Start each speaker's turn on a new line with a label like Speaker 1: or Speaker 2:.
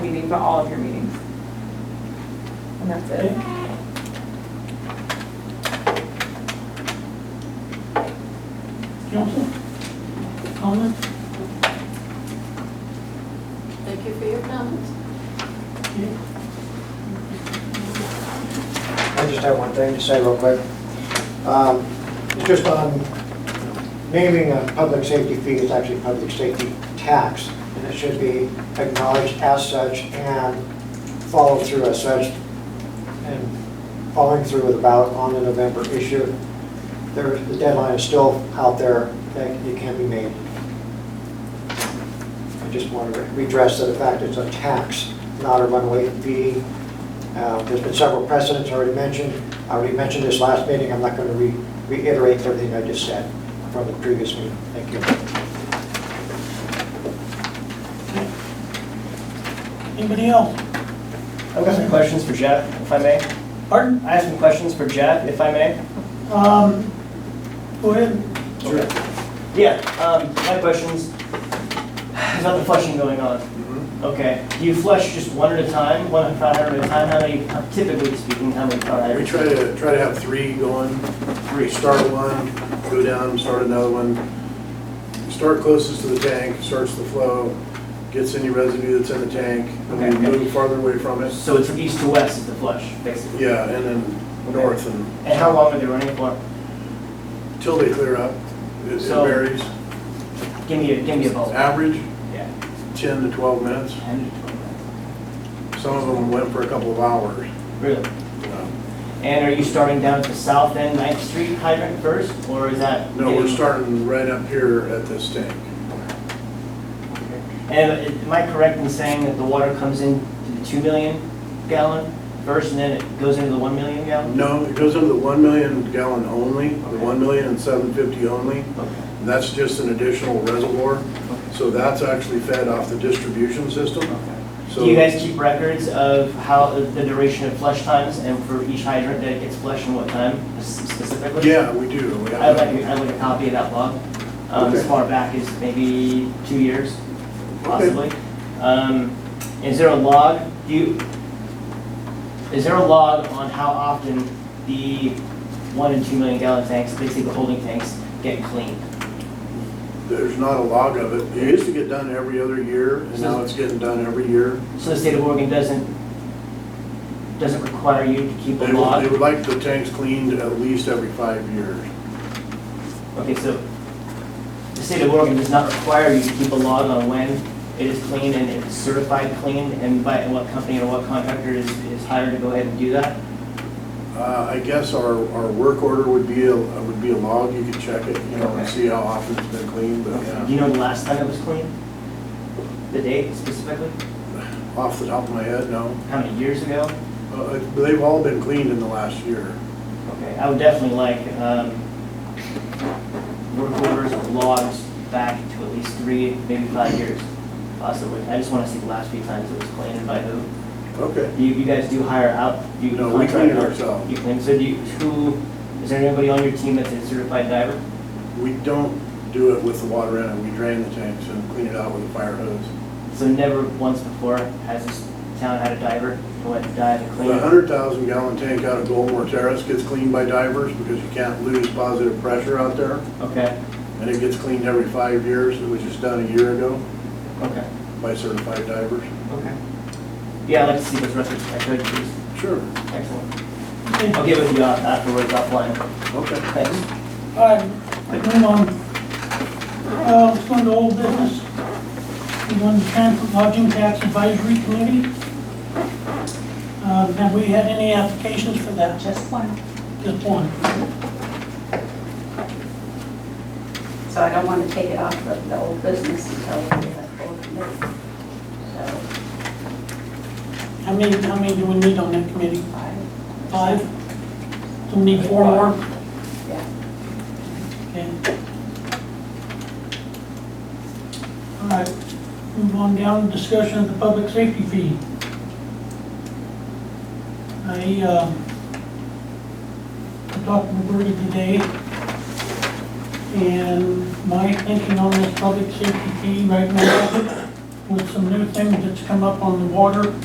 Speaker 1: meeting, but all of your meetings. And that's it.
Speaker 2: Council? Comments?
Speaker 3: Thank you for your comments.
Speaker 2: Yeah.
Speaker 4: I just have one thing to say real quick. Um, It's just on naming a public safety fee is actually public safety tax, and it should be acknowledged as such and followed through as such, and following through with about on the November issue. There, the deadline is still out there, that it can be made. I just want to redress the fact it's a tax, not a runaway fee, uh, There's been several precedents already mentioned. I already mentioned this last meeting, I'm not going to re reiterate everything I just said from the previous meeting. Thank you.
Speaker 2: Anybody else?
Speaker 5: I've got some questions for Jeff, if I may.
Speaker 2: Pardon?
Speaker 5: I have some questions for Jeff, if I may.
Speaker 2: Um, go ahead.
Speaker 5: Sure. Yeah, um, my questions, there's not the flushing going on. Okay, do you flush just one at a time, one front at a time, how many, typically speaking, how many front
Speaker 6: We
Speaker 5: items?
Speaker 6: try to, try to have three going, three, start one, go down, start another one. Start closest to the tank, starts the flow, gets any residue that's in the tank, and
Speaker 5: Okay,
Speaker 6: we
Speaker 5: okay.
Speaker 6: move farther away from it.
Speaker 5: So it's from east to west is the flush, basically?
Speaker 6: Yeah, and then north and,
Speaker 5: And how long are they running for?
Speaker 6: till they clear up, it it
Speaker 5: So-
Speaker 6: varies.
Speaker 5: Give me a, give me a ballpark.
Speaker 6: Average,
Speaker 5: Yeah.
Speaker 6: 10 to 12 minutes.
Speaker 5: Ten to twenty minutes.
Speaker 6: Some of them went for a couple of hours.
Speaker 5: Really? Um,
Speaker 6: you know.
Speaker 5: And are you starting down at the south end, Ninth Street hydrant first, or is that?
Speaker 6: No, we're
Speaker 5: getting-
Speaker 6: starting right up here at this tank.
Speaker 5: And am I correct in saying that the water comes in to the 2 million gallon first, and then it goes into the 1 million gallon?
Speaker 6: No, it goes into the 1 million gallon only, the 1 million and 750 only.
Speaker 5: Okay.
Speaker 6: And That's just an additional reservoir, so that's actually fed off the distribution system. So
Speaker 5: Do you guys keep records of how, the duration of flush times, and for each hydrant that it gets flushed and what time specifically?
Speaker 6: Yeah, we do. We have
Speaker 5: I'd like,
Speaker 6: that.
Speaker 5: I'd like a copy of that log, um, as
Speaker 6: Okay.
Speaker 5: far back as maybe two years,
Speaker 6: Okay.
Speaker 5: possibly. Um, is there a log, do you, is there a log on how often the one and two million gallon tanks, basically the holding tanks, get cleaned?
Speaker 6: There's not a log of it. It used to get done every other year, and now it's getting done every year.
Speaker 5: So the state of Oregon doesn't, doesn't require you to keep a
Speaker 6: They would,
Speaker 5: log?
Speaker 6: they would like the tanks cleaned at least every five years.
Speaker 5: Okay, so the state of Oregon does not require you to keep a log on when it is clean and it's certified clean and by what company or what contractor is, is hired to go ahead and do that?
Speaker 6: Uh, I guess our, our work order would be, a would be a log. You could check it, you know, and
Speaker 5: Okay.
Speaker 6: see how often it's been cleaned, but
Speaker 5: Do
Speaker 6: yeah.
Speaker 5: you know the last time it was clean? The date specifically?
Speaker 6: Off the top of my head, no.
Speaker 5: How many years ago?
Speaker 6: Uh, They've all been cleaned in the last year.
Speaker 5: Okay, I would definitely like, um, work orders or logs back to at least three, maybe five years, possibly. I just wanna see the last few times it was cleaned and by who.
Speaker 6: Okay.
Speaker 5: You, you guys do hire out, you
Speaker 6: No, we
Speaker 5: contract?
Speaker 6: clean it
Speaker 5: out?
Speaker 6: ourselves.
Speaker 5: You clean, so do you, who, is there anybody on your team that's a certified diver?
Speaker 6: We don't do it with the water in it, we drain the tanks and clean it out with a fire hose.
Speaker 5: So never once before has this town had a diver who went to dive and clean?
Speaker 6: The hundred thousand gallon tank out of Goldmore Terrace gets cleaned by divers because you can't lose positive pressure out there.
Speaker 5: Okay,
Speaker 6: And it gets cleaned every five years, it was just done a year ago
Speaker 5: okay,
Speaker 6: by certified divers.
Speaker 5: okay. Yeah, I'd like to see those records, if I could, please.
Speaker 6: Sure.
Speaker 5: Excellent.
Speaker 2: Okay,
Speaker 5: I'll
Speaker 2: all
Speaker 5: get with you uh, afterwards offline.
Speaker 6: Okay.
Speaker 5: Thanks.
Speaker 2: right, moving on. Uh, let's go into old business. We go into transit lodging tax advisory committee. Uh, have we had any applications for that?
Speaker 3: Just one.
Speaker 2: Just one.
Speaker 3: So I don't want to take it off of the old business until we have full committee. So
Speaker 2: How many, how many do we need on that committee?
Speaker 3: five.
Speaker 2: Five? Do we need four more?
Speaker 3: Yeah.
Speaker 2: Okay. All right, move on down, to discussion of the public safety fee. I, uh, I talked to Bertie today, and my thinking on this public safety fee right now with some new things that's come up on the water